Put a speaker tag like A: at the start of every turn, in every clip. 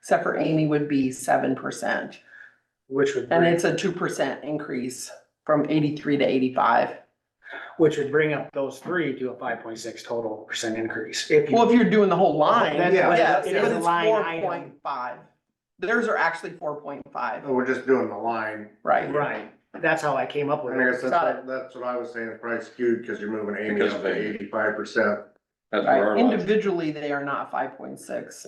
A: except for Amy would be seven percent.
B: Which would,
A: And
B: bring-
A: it's a two percent increase from eighty-three to eighty-five.
B: which would bring up those three to a five point six total percent increase. If you-
A: Well, if you're doing the whole line,
B: That's-
C: Yeah.
A: yes,
B: it
A: but
B: is a
A: it's
B: line
A: four
B: item.
A: point five. Theirs are actually four point five,
C: We're just doing the line.
A: right?
B: Right, that's how I came up with
C: And I
B: it.
C: guess that's, that's what I was saying, it's probably skewed because you're moving Amy
D: Because
C: up
D: of
C: to
D: Amy.
C: eighty-five percent.
D: That's where
A: Right,
D: our lines,
A: individually, they are not five point six.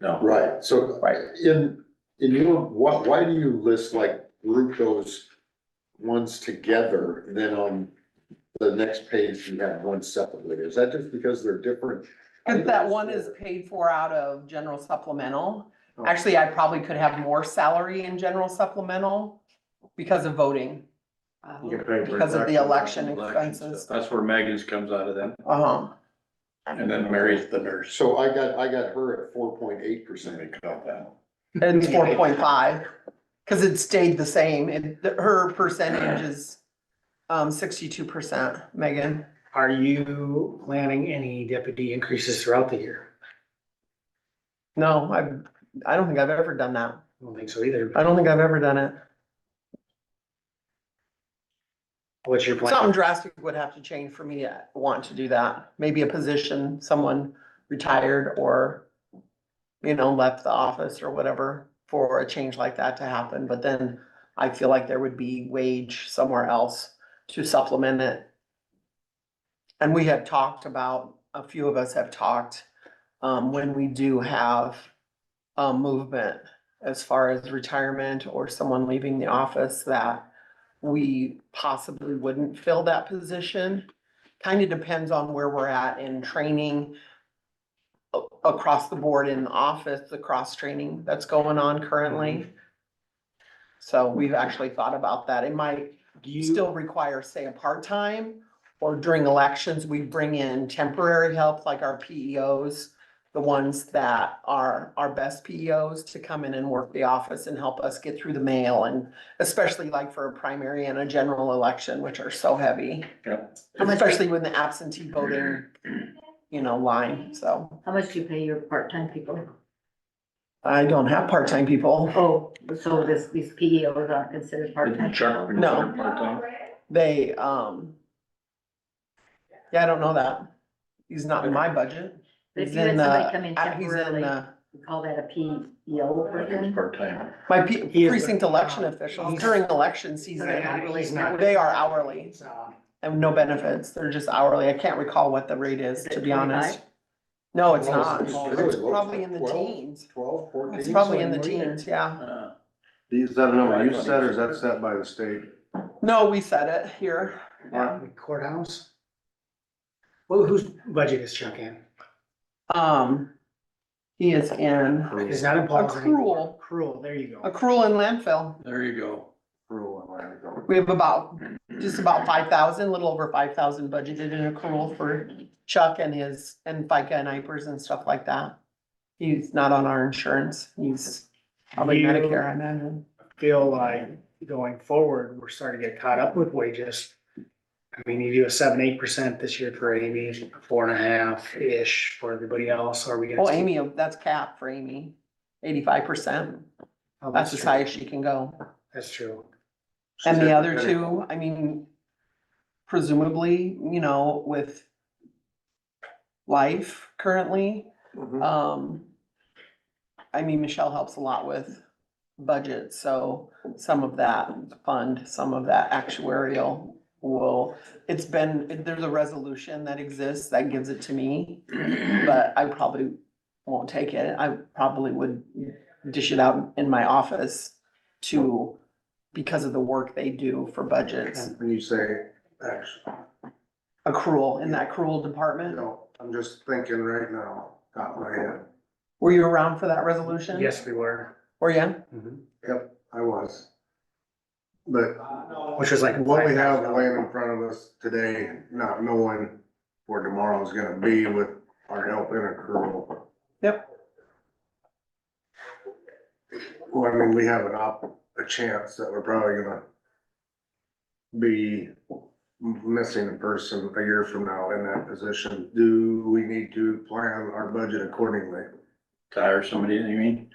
D: no,
E: Right, so
A: Right.
E: in, in your, why, why do you list like group those ones together, and then on the next page you have one separately? Is that just because they're different?
A: Cause that
E: items,
A: one is
E: or-
A: paid for out of general supplemental.
C: Oh.
A: Actually, I probably could have more salary in general supplemental because of voting.
C: You get paid for
A: Because of the
C: exactly-
A: election expenses.
D: that's where Megan's comes out of them,
A: Uh-huh.
D: and then Mary's the nurse.
E: So I got, I got her at four point eight percent.
A: It's four point five, cause it stayed the same, it, the- her percentage is, um, sixty-two percent, Megan.
B: Are you planning any deputy increases throughout the year?
A: No, I, I don't think I've ever done that,
B: I don't think so either.
A: I
B: but
A: don't think I've ever done it.
B: What's your
A: Something
B: plan?
A: drastic would have to change for me to want to do that, maybe a position, someone retired or, you know, left the office or whatever for a change like that to happen, but then I feel like there would be wage somewhere else to supplement it. And we have talked about, a few of us have talked, um, when we do have a movement as far as retirement or someone leaving the office that we possibly wouldn't fill that position. Kind of depends on where we're at in training a- across the board in the office, the cross training that's going on currently. So we've actually thought about that. It might
B: Do you,
A: still require, say, a part-time, or during elections, we bring in temporary help, like our PEOs, the ones that are our best PEOs to come in and work the office and help us get through the mail, and especially like for a primary and a general election, which are so heavy,
F: How much,
A: especially when the absentee voting, you know, line, so.
F: how much do you pay your part-time people?
A: I don't have part-time people.
F: Oh, so this, these PEOs aren't considered part-time?
D: Chuck,
F: people?
A: No.
D: part-time.
A: They, um, yeah, I don't know that. He's not in my budget.
F: But if
A: He's
F: you had
A: in the-
F: somebody come in
A: Uh, He's in,
F: temporarily,
A: uh,
F: we call that a PEO
D: I think it's
F: person?
D: part-time.
A: my pe-
B: He is-
A: precinct election officials
B: He's-
A: during election
B: He's
A: season,
B: not- he's not-
A: they are hourly
B: It's, uh,
A: and no benefits. They're just hourly. I can't recall what the rate is,
F: Is it
A: to be honest. No, it's
E: Well,
A: not.
E: it's really
A: It's
E: low.
A: probably in the
E: Twelve?
A: teens.
E: Twelve, fourteen?
A: It's probably in the
E: somewhere there.
A: teens, yeah.
D: Uh,
C: Is that a number you set or is that set by the state?
A: No, we said it here. Yeah.
B: Courthouse? Well, whose budget is Chuck in?
A: Um, he is in
B: It's not in Paul's anymore. Cruel, there you go.
A: accrual and landfill.
D: There you go.
C: Rural Atlanta.
A: We have about, just about five thousand, little over five thousand budgeted in accrual for Chuck and his, and FICA and IPers and stuff like that. He's not on our insurance, he's probably
B: You-
A: Medicare, I imagine.
B: Feel like going forward, we're starting to get caught up with wages. I mean, you do a seven, eight percent this year for Amy, four and a half-ish for everybody else, are we gonna?
A: Well, Oh, Amy, that's cap for Amy, eighty-five percent,
B: Oh,
A: that's as
B: true.
A: high as she can go.
B: That's true.
A: And the other two, I mean, presumably, you know, with life currently,
C: Mhm.
A: Um, I mean, Michelle helps a lot with budget, so some of that fund, some of that actuarial will, it's been, there's a resolution that exists that gives it to me, but I probably won't take it. I probably would dish it out in my office to, because of the work they do for budgets,
C: When you say, actually,
A: accrual, in that accrual department.
C: no, I'm just thinking right now, got my head.
A: Were you around for that resolution?
B: Yes, we were.
A: Were you?
B: Mhm.
C: Yep, I was. But
B: Which was like.
C: what we have
B: $5,000.
C: laying in front of us today, not knowing where tomorrow's gonna be with our help in accrual.
A: Yep.
C: Well, I mean, we have an op, a chance that we're probably gonna be m- missing a person a year from now in that position. Do we need to plan our budget accordingly?
D: To hire somebody, you mean?